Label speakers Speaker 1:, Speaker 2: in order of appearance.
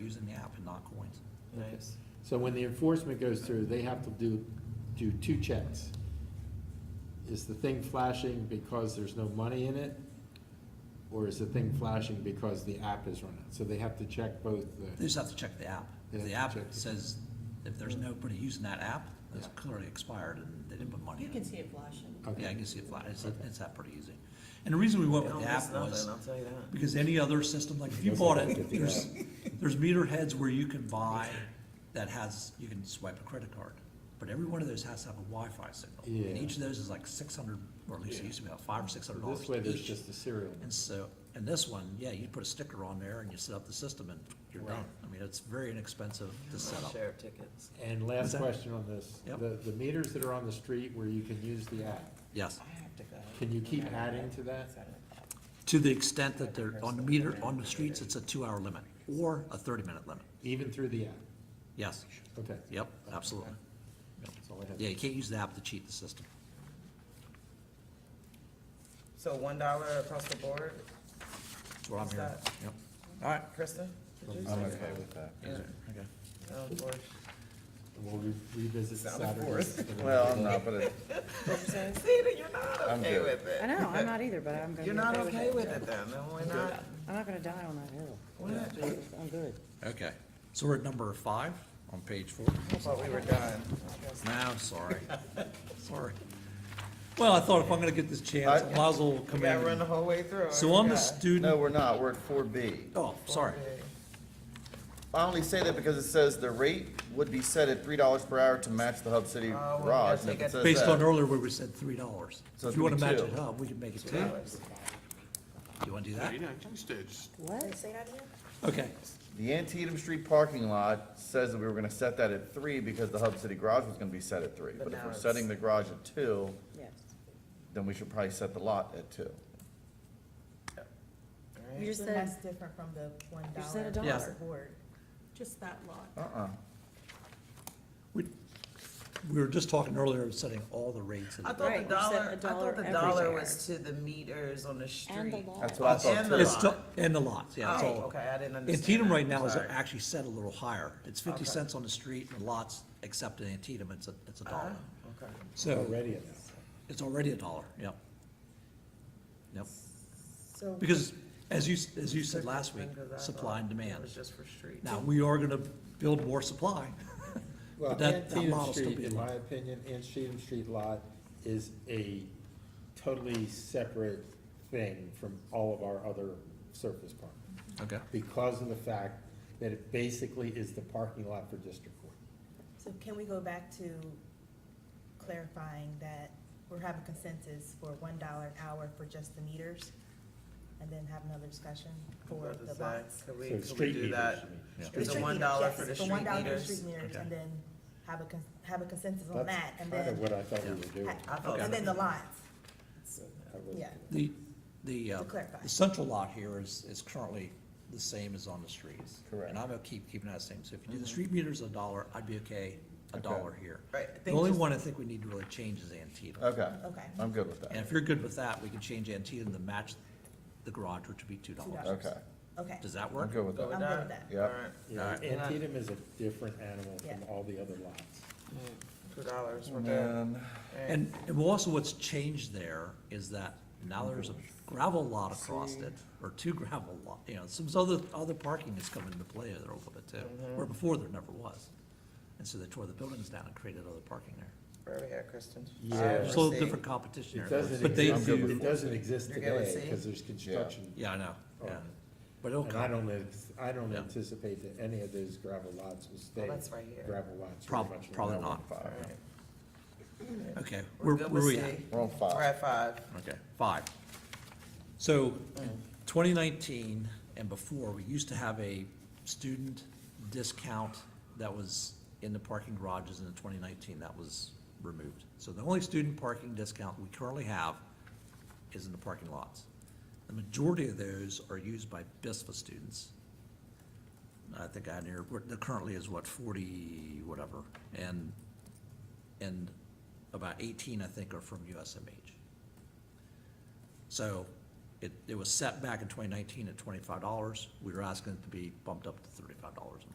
Speaker 1: using the app and not coins.
Speaker 2: Okay.
Speaker 3: Nice.
Speaker 2: So when the enforcement goes through, they have to do, do two checks. Is the thing flashing because there's no money in it? Or is the thing flashing because the app is running? So they have to check both
Speaker 1: They
Speaker 2: the,
Speaker 1: just have to check the app. If
Speaker 2: They
Speaker 1: the
Speaker 2: have
Speaker 1: app
Speaker 2: to check the-
Speaker 1: says, if there's nobody using that app, that's
Speaker 2: Yeah.
Speaker 1: clearly expired and they didn't put money
Speaker 4: You
Speaker 1: in
Speaker 4: can
Speaker 1: it.
Speaker 4: see it flashing.
Speaker 1: Yeah, I
Speaker 2: okay,
Speaker 1: can see it fly, it's,
Speaker 2: Okay.
Speaker 1: it's that pretty easy. And the reason we went
Speaker 3: They
Speaker 1: with
Speaker 3: don't
Speaker 1: the
Speaker 3: miss
Speaker 1: app was,
Speaker 3: nothing, I'll tell you that.
Speaker 1: because any other system, like if you bought it, there's, there's meter heads where you can buy that has, you can swipe a credit card. But every one of those has to have a Wi-Fi signal. And
Speaker 2: Yeah.
Speaker 1: each of those is like six hundred, or at least it used to be about five or six hundred dollars
Speaker 2: this way there's
Speaker 1: each.
Speaker 2: just a serial.
Speaker 1: And so, and this one, yeah, you put a sticker on there and you set up the system and you're done. I mean, it's very inexpensive to set up.
Speaker 3: Sheriff tickets.
Speaker 2: And
Speaker 1: What's
Speaker 2: last
Speaker 1: that?
Speaker 2: question on this,
Speaker 1: Yep.
Speaker 2: the, the meters that are on the street where you can use the app,
Speaker 1: Yes.
Speaker 4: I have to go.
Speaker 2: can you keep adding to that?
Speaker 1: To the extent that they're on the meter, on the streets, it's a two-hour limit or a thirty-minute limit.
Speaker 2: Even through the app?
Speaker 1: Yes.
Speaker 2: Okay.
Speaker 1: Yep, absolutely.
Speaker 2: That's all I have.
Speaker 1: Yeah, you can't use the app to cheat the system.
Speaker 5: So one dollar across the board,
Speaker 1: That's what I'm
Speaker 5: Is
Speaker 1: hearing.
Speaker 5: that-
Speaker 1: Yep.
Speaker 5: Krista? did you
Speaker 6: I'm
Speaker 5: say?
Speaker 6: okay with that.
Speaker 5: Yeah,
Speaker 1: Okay.
Speaker 5: sounds good.
Speaker 2: We'll re- revisit
Speaker 5: Sounded
Speaker 2: Saturday.
Speaker 5: forced.
Speaker 6: Well, I'm not, but it,
Speaker 5: What you saying? Sita, you're not
Speaker 6: I'm
Speaker 5: okay
Speaker 6: good.
Speaker 5: with
Speaker 7: I
Speaker 5: it.
Speaker 7: know, I'm not either, but I'm gonna be
Speaker 5: You're not
Speaker 7: okay
Speaker 5: okay
Speaker 7: with it.
Speaker 5: with it then, then we're not,
Speaker 7: I'm not gonna die on that hill.
Speaker 5: we're not, I
Speaker 7: Jesus, I'm good.
Speaker 1: Okay, so we're at number five on page four.
Speaker 5: thought we were done. I guess
Speaker 1: No, I'm sorry. Sorry. Well, I thought if I'm gonna get this chance, I might as well
Speaker 5: We
Speaker 1: come
Speaker 5: gotta run
Speaker 1: in.
Speaker 5: the whole way through. I
Speaker 1: So on the
Speaker 5: forgot.
Speaker 6: no,
Speaker 1: student,
Speaker 6: we're not, we're at four B.
Speaker 1: oh, sorry.
Speaker 6: I only say that because it says the rate would be set at three dollars per hour to match the Hub City
Speaker 5: Oh, well,
Speaker 6: garage.
Speaker 5: yes,
Speaker 6: and
Speaker 5: they
Speaker 6: if it
Speaker 5: got-
Speaker 6: says
Speaker 1: Based on
Speaker 6: that-
Speaker 1: earlier where we said three dollars.
Speaker 6: So
Speaker 1: If
Speaker 6: it's
Speaker 1: you wanna
Speaker 6: gonna be
Speaker 1: match it
Speaker 6: two.
Speaker 1: up, we can make it two.
Speaker 5: $2.
Speaker 1: You wanna do
Speaker 8: Yeah,
Speaker 1: that?
Speaker 8: you know, you stay, just
Speaker 7: What?
Speaker 1: Okay,
Speaker 6: The Antietam Street parking lot says that we were gonna set that at three because the Hub City garage was gonna be set at three.
Speaker 5: But
Speaker 6: But if
Speaker 5: now
Speaker 6: we're
Speaker 5: it's-
Speaker 6: setting the garage at two,
Speaker 7: Yes.
Speaker 6: then we should probably set the lot at two.
Speaker 5: Alright.
Speaker 7: You just
Speaker 9: So
Speaker 7: said,
Speaker 9: that's different from the one
Speaker 7: you said
Speaker 9: dollar
Speaker 7: a
Speaker 1: Yeah.
Speaker 7: dollar.
Speaker 9: board.
Speaker 4: Just that lot.
Speaker 6: Uh-uh.
Speaker 1: we, we were just talking earlier of setting all the rates. and-
Speaker 5: I thought the
Speaker 7: Right, you said
Speaker 5: dollar,
Speaker 7: a
Speaker 5: I
Speaker 7: dollar
Speaker 5: thought the dollar
Speaker 7: everywhere.
Speaker 5: was to the meters on the
Speaker 7: And the
Speaker 5: street.
Speaker 7: law.
Speaker 6: That's what I thought
Speaker 5: And
Speaker 6: too.
Speaker 5: the
Speaker 1: It's,
Speaker 5: lot.
Speaker 1: still- and the lots, yeah, it's
Speaker 5: Oh,
Speaker 1: all.
Speaker 5: Okay, I didn't understand.
Speaker 1: Antietam
Speaker 5: that.
Speaker 1: right now is
Speaker 5: Sorry.
Speaker 1: actually set a little higher. It's fifty
Speaker 5: Okay.
Speaker 1: cents on the street and lots, except in Antietam, it's a, it's a dollar.
Speaker 5: Oh, Okay.
Speaker 1: So
Speaker 2: Already at that.
Speaker 1: it's already a dollar, yep. Yep,
Speaker 9: So
Speaker 1: because as you, s- as you said last week, supply and
Speaker 5: It was
Speaker 1: demand.
Speaker 5: just for street.
Speaker 1: Now, we are gonna build more supply.
Speaker 2: Well,
Speaker 1: But that- that
Speaker 2: Antietam
Speaker 1: model's still
Speaker 2: Street,
Speaker 1: being
Speaker 2: in
Speaker 1: run.
Speaker 2: my opinion, Antietam Street lot is a totally separate thing from all of our other surface park.
Speaker 1: Okay.
Speaker 2: Because of the fact that it basically is the parking lot for District Court.
Speaker 9: So can we go back to clarifying that we're having consensus for one dollar an hour for just the meters? And then have another discussion for
Speaker 5: What
Speaker 9: the
Speaker 5: is that?
Speaker 9: lots?
Speaker 5: Could we,
Speaker 2: So
Speaker 5: could we
Speaker 2: street
Speaker 5: do
Speaker 2: meters,
Speaker 5: that?
Speaker 2: you mean.
Speaker 9: For
Speaker 5: Is it
Speaker 9: street
Speaker 5: one
Speaker 9: meters,
Speaker 5: dollar
Speaker 9: yes,
Speaker 5: for the street
Speaker 9: one dollar for the
Speaker 5: meters?
Speaker 9: street meters,
Speaker 1: Okay.
Speaker 9: and then have a, cons- have a consensus on that,
Speaker 2: That's
Speaker 9: and
Speaker 2: kind of
Speaker 9: then,
Speaker 2: what I thought we were doing.
Speaker 5: I thought-
Speaker 9: and then the lots,
Speaker 2: I really-
Speaker 9: yeah.
Speaker 1: The, the, uh,
Speaker 9: To clarify.
Speaker 1: the central lot here is, is currently the same as on the streets.
Speaker 6: Correct. Mm-hmm.
Speaker 1: And I'm gonna keep, keeping that same, so if you do the street meters a dollar, I'd be okay, a
Speaker 6: Okay.
Speaker 1: dollar here.
Speaker 5: Right, I
Speaker 1: The
Speaker 5: think
Speaker 1: only
Speaker 5: just-
Speaker 1: one I think we need to really change is Antietam.
Speaker 6: Okay.
Speaker 9: Okay.
Speaker 6: I'm good with
Speaker 1: And
Speaker 6: that.
Speaker 1: if you're good with that, we can change Antietam to match the garage, which would be two
Speaker 9: $2.
Speaker 1: dollars.
Speaker 6: Okay,
Speaker 9: Okay,
Speaker 1: Does that
Speaker 6: I'm
Speaker 1: work?
Speaker 6: good with
Speaker 5: Go
Speaker 6: that.
Speaker 5: with
Speaker 9: I'm good with that.
Speaker 6: Yeah.
Speaker 5: Alright,
Speaker 2: Yeah,
Speaker 1: Alright.
Speaker 2: Antietam is a different animal from
Speaker 9: Yeah.
Speaker 2: all the other lots.
Speaker 5: two dollars, we're
Speaker 6: And
Speaker 5: good.
Speaker 6: then-
Speaker 1: And, and also what's changed there is that now there's a gravel lot across it, or two gravel lot, you know, some other, other parking has come into play there a little bit too,
Speaker 2: Mm-hmm.
Speaker 1: where before there never was. And so they tore the buildings down and created other parking there.
Speaker 5: Where are we at, Kristen?
Speaker 2: Yeah.
Speaker 5: I
Speaker 1: There's a little
Speaker 5: see.
Speaker 1: different competition
Speaker 2: It
Speaker 1: there,
Speaker 2: doesn't
Speaker 1: but they
Speaker 2: exist,
Speaker 1: do,
Speaker 2: it doesn't exist
Speaker 5: You're gonna
Speaker 2: today
Speaker 5: see?
Speaker 2: because there's construction.
Speaker 1: yeah, I know, yeah.
Speaker 2: Oh.
Speaker 1: But it'll
Speaker 2: And I
Speaker 1: come,
Speaker 2: don't, ex- I don't
Speaker 1: Yeah.
Speaker 2: anticipate that any of those gravel lots will stay.
Speaker 5: that's right here.
Speaker 2: Gravel lots. very
Speaker 1: probably,
Speaker 2: much
Speaker 1: probably
Speaker 2: longer.
Speaker 1: not.
Speaker 5: Alright,
Speaker 1: Okay,
Speaker 5: We're
Speaker 1: where,
Speaker 5: good
Speaker 1: where
Speaker 5: with
Speaker 1: we
Speaker 5: C.
Speaker 1: at?
Speaker 6: We're on
Speaker 5: We're
Speaker 6: five.
Speaker 5: at five.
Speaker 1: Okay, five. So, twenty nineteen and before, we used to have a student discount that was in the parking garages, and in twenty nineteen, that was removed. So the only student parking discount we currently have is in the parking lots. The majority of those are used by BISFA students. I think I near, we're- there currently is what, forty, whatever, and, and about eighteen, I think, are from USMH. So It, it was set back in twenty nineteen at twenty-five dollars. We were asking it to be bumped up to thirty-five dollars